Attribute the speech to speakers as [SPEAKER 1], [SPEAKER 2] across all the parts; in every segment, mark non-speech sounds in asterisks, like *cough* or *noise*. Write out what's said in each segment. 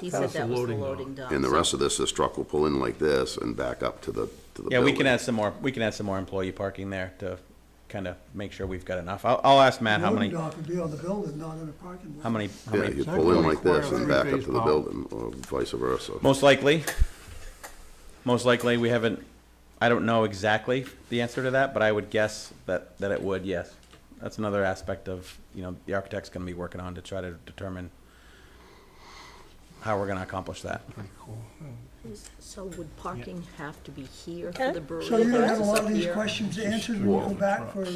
[SPEAKER 1] He
[SPEAKER 2] That
[SPEAKER 1] said
[SPEAKER 2] was the
[SPEAKER 1] that was the
[SPEAKER 2] loading dock.
[SPEAKER 1] loading dock.
[SPEAKER 3] And the
[SPEAKER 1] so-
[SPEAKER 3] rest of this, this truck will pull in like this and back up to the, to the
[SPEAKER 4] Yeah, we can
[SPEAKER 3] building.
[SPEAKER 4] add some more, we can add some more employee parking there to kind of make sure we've got enough. I'll, I'll ask Matt how
[SPEAKER 5] Loading
[SPEAKER 4] many,
[SPEAKER 5] dock would be on the building, not in a parking lot.
[SPEAKER 4] how many, how
[SPEAKER 3] Yeah,
[SPEAKER 4] many,
[SPEAKER 3] you pull in like this and
[SPEAKER 2] Exactly.
[SPEAKER 3] back up to the
[SPEAKER 2] Three-phase
[SPEAKER 3] building, or vice versa.
[SPEAKER 4] most likely. Most likely, we haven't, I don't know exactly the answer to that, but I would guess that, that it would, yes. That's another aspect of, you know, the architect's gonna be working on to try to determine how we're gonna accomplish that.
[SPEAKER 2] Pretty cool.
[SPEAKER 1] So would parking have to be here for
[SPEAKER 6] Okay.
[SPEAKER 1] the brewery?
[SPEAKER 5] So you're gonna have a
[SPEAKER 1] versus
[SPEAKER 5] lot
[SPEAKER 1] up
[SPEAKER 5] of these
[SPEAKER 1] here?
[SPEAKER 5] questions answered when you go back for,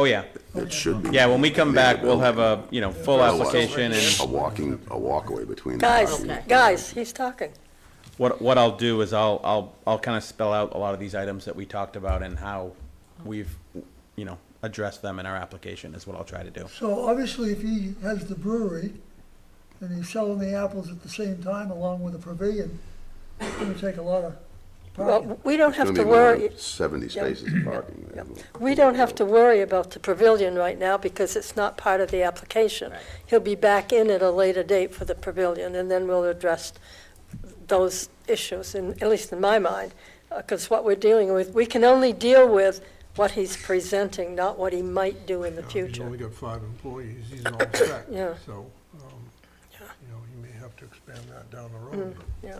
[SPEAKER 4] Oh, yeah,
[SPEAKER 3] It should be.
[SPEAKER 4] yeah, when we come back, we'll have a, you know, full application and
[SPEAKER 3] A walking, a walkaway between. the
[SPEAKER 6] Guys,
[SPEAKER 3] two.
[SPEAKER 1] Okay.
[SPEAKER 6] guys, he's talking.
[SPEAKER 4] What, what I'll do is I'll, I'll, I'll kind of spell out a lot of these items that we talked about and how we've, you know, addressed them in our application is what I'll try to do.
[SPEAKER 5] so obviously if he has the brewery and he's selling the apples at the same time along with the pavilion, it's gonna take a lot of parking.
[SPEAKER 6] Well, we don't
[SPEAKER 3] It's
[SPEAKER 6] have
[SPEAKER 3] gonna
[SPEAKER 6] to
[SPEAKER 3] be more than
[SPEAKER 6] worry,
[SPEAKER 3] Seventy spaces of parking there.
[SPEAKER 6] we don't have to worry about the pavilion right now because it's not part of the application. He'll be back in at a later date for the pavilion, and then we'll address those issues, in, at least in my mind. Because what we're dealing with, we can only deal with what he's presenting, not what he might do in the
[SPEAKER 2] He's only
[SPEAKER 6] future.
[SPEAKER 2] got five employees, he's all set,
[SPEAKER 6] Yeah.
[SPEAKER 2] so, um, you know, he may have to expand that down the road. but-
[SPEAKER 6] Yeah.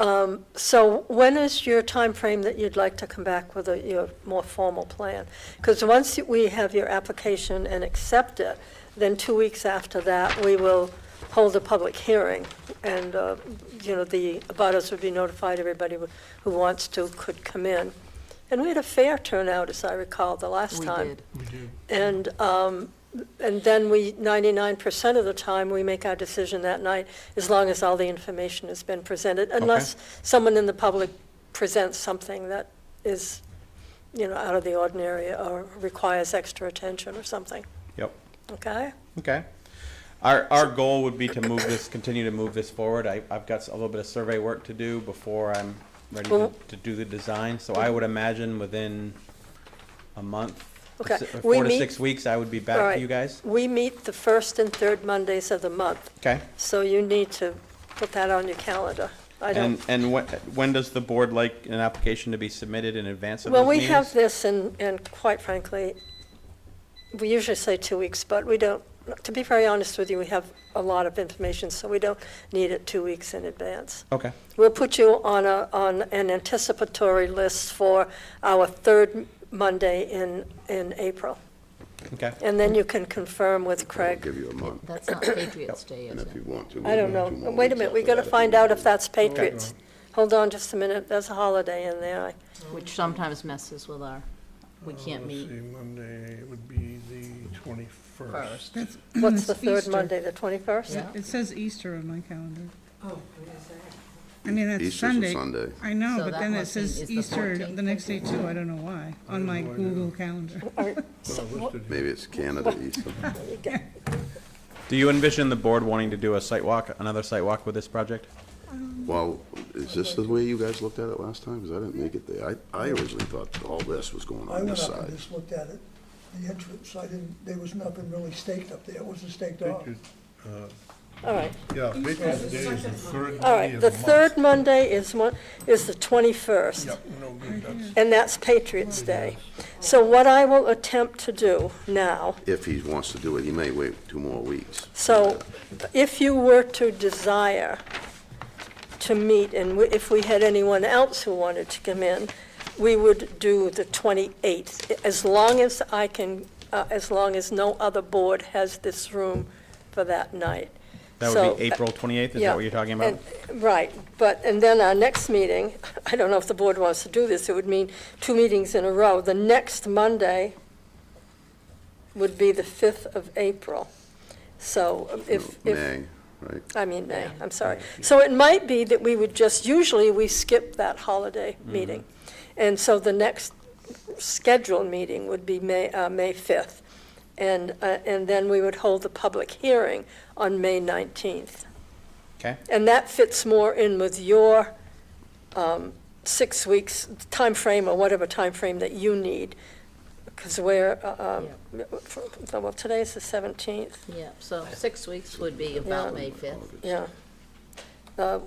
[SPEAKER 6] Um, So when is your time frame that you'd like to come back with a, your more formal plan? Because once we have your application and accept it, then two weeks after that, we will hold a public hearing. And, uh, you know, the abutters would be notified, everybody who- who wants to could come in. And we had a fair turnout, as I recall, the last
[SPEAKER 1] We
[SPEAKER 6] time.
[SPEAKER 1] did.
[SPEAKER 2] We do,
[SPEAKER 6] And, um, and then we, 99% of the time, we make our decision that night, as long as all the information has been presented, unless someone in the public presents something that is, you know, out of the ordinary or requires extra attention or something,
[SPEAKER 4] Yep.
[SPEAKER 6] okay?
[SPEAKER 4] Okay. Our, our goal would be to move this, continue to move this forward. I, I've got a little bit of survey work to do before I'm ready to,
[SPEAKER 6] Well-
[SPEAKER 4] to do the design. So I would imagine within a month,
[SPEAKER 6] Okay,
[SPEAKER 4] si-
[SPEAKER 6] we
[SPEAKER 4] four to
[SPEAKER 6] meet-
[SPEAKER 4] six weeks, I would be
[SPEAKER 6] All
[SPEAKER 4] back
[SPEAKER 6] right.
[SPEAKER 4] to you guys.
[SPEAKER 6] We meet the first and third Mondays of the month,
[SPEAKER 4] Okay.
[SPEAKER 6] so you need to put that on your calendar. I
[SPEAKER 4] And,
[SPEAKER 6] don't,
[SPEAKER 4] and when, when does the board like an application to be submitted in advance of those
[SPEAKER 6] well, we
[SPEAKER 4] meetings?
[SPEAKER 6] have this, and, and quite frankly, we usually say two weeks, but we don't, to be very honest with you, we have a lot of information, so we don't need it two weeks in advance.
[SPEAKER 4] Okay.
[SPEAKER 6] We'll put you on a, on an anticipatory list for our third Monday in, in April.
[SPEAKER 4] Okay.
[SPEAKER 6] And then you can confirm with
[SPEAKER 3] I'll
[SPEAKER 6] Craig.
[SPEAKER 3] Give you a month,
[SPEAKER 1] That's not Patriots Day,
[SPEAKER 3] and
[SPEAKER 1] is
[SPEAKER 3] if you
[SPEAKER 1] it?
[SPEAKER 3] want to.
[SPEAKER 6] I don't know, wait a minute, we gotta find out if that's Patriots. Hold on just a minute, there's a holiday in
[SPEAKER 7] *clears throat*
[SPEAKER 6] there.
[SPEAKER 1] Which sometimes messes with our, we can't
[SPEAKER 2] uh, let's
[SPEAKER 1] meet.
[SPEAKER 2] see, Monday, it would be the twenty-first.
[SPEAKER 7] That's-
[SPEAKER 6] What's the
[SPEAKER 7] it's
[SPEAKER 6] third
[SPEAKER 7] Easter.
[SPEAKER 6] Monday, the twenty-first?
[SPEAKER 1] Yeah.
[SPEAKER 7] It says Easter on my calendar.
[SPEAKER 1] Oh,
[SPEAKER 7] I mean, that's
[SPEAKER 3] Easter's a
[SPEAKER 7] Sunday.
[SPEAKER 3] Sunday.
[SPEAKER 7] I know,
[SPEAKER 1] So
[SPEAKER 7] but
[SPEAKER 1] that
[SPEAKER 7] then it
[SPEAKER 1] must mean it's
[SPEAKER 7] says
[SPEAKER 1] the
[SPEAKER 7] Easter
[SPEAKER 1] 14th.
[SPEAKER 7] the next day too, I don't know why, on my Google calendar.
[SPEAKER 3] Maybe it's Canada Easter.
[SPEAKER 4] Do you envision the board wanting to do a site walk, another site walk with this project?
[SPEAKER 3] Well, is this the way you guys looked at it last time? Because I didn't make it there. I, I originally thought all this was going
[SPEAKER 5] I
[SPEAKER 3] on
[SPEAKER 5] went
[SPEAKER 3] this
[SPEAKER 5] up and
[SPEAKER 3] side.
[SPEAKER 5] just looked at it, the entrance, I didn't, there was nothing really staked up there, it wasn't staked off.
[SPEAKER 6] All right.
[SPEAKER 2] Yeah, Patriots Day is the third
[SPEAKER 6] All
[SPEAKER 2] day
[SPEAKER 6] right,
[SPEAKER 2] of
[SPEAKER 6] the
[SPEAKER 2] month.
[SPEAKER 6] third Monday is one, is the 21st,
[SPEAKER 2] Yep, no good, that's,
[SPEAKER 6] and that's Patriots Day. So what I will attempt to do now,
[SPEAKER 3] If he wants to do it, he may wait two more weeks.
[SPEAKER 6] so if you were to desire to meet, and we- if we had anyone else who wanted to come in, we would do the 28th, as long as I can, uh, as long as no other board has this room for that night.
[SPEAKER 4] That
[SPEAKER 6] So, uh,
[SPEAKER 4] would be April 28th, is
[SPEAKER 6] Yeah,
[SPEAKER 4] that what you're talking about?
[SPEAKER 6] and- Right, but, and then our next meeting, *laughs* I don't know if the board wants to do this, it would mean two meetings in a row. The next Monday would be the 5th of April. So if, if,
[SPEAKER 3] May, right?
[SPEAKER 6] I mean, May, I'm sorry. So it might be that we would just, usually we skip that holiday
[SPEAKER 4] Mm-hmm.
[SPEAKER 6] meeting. And so the next scheduled meeting would be May, uh, May 5th. And, uh, and then we would hold the public hearing on May 19th.
[SPEAKER 4] Okay,
[SPEAKER 6] And that fits more in with your um, six weeks time frame or whatever time frame that you need. Because we're, uh, um, well, today's the 17th,
[SPEAKER 1] Yeah, so six weeks would be about
[SPEAKER 6] Yeah.
[SPEAKER 1] May 5th.
[SPEAKER 6] yeah. uh,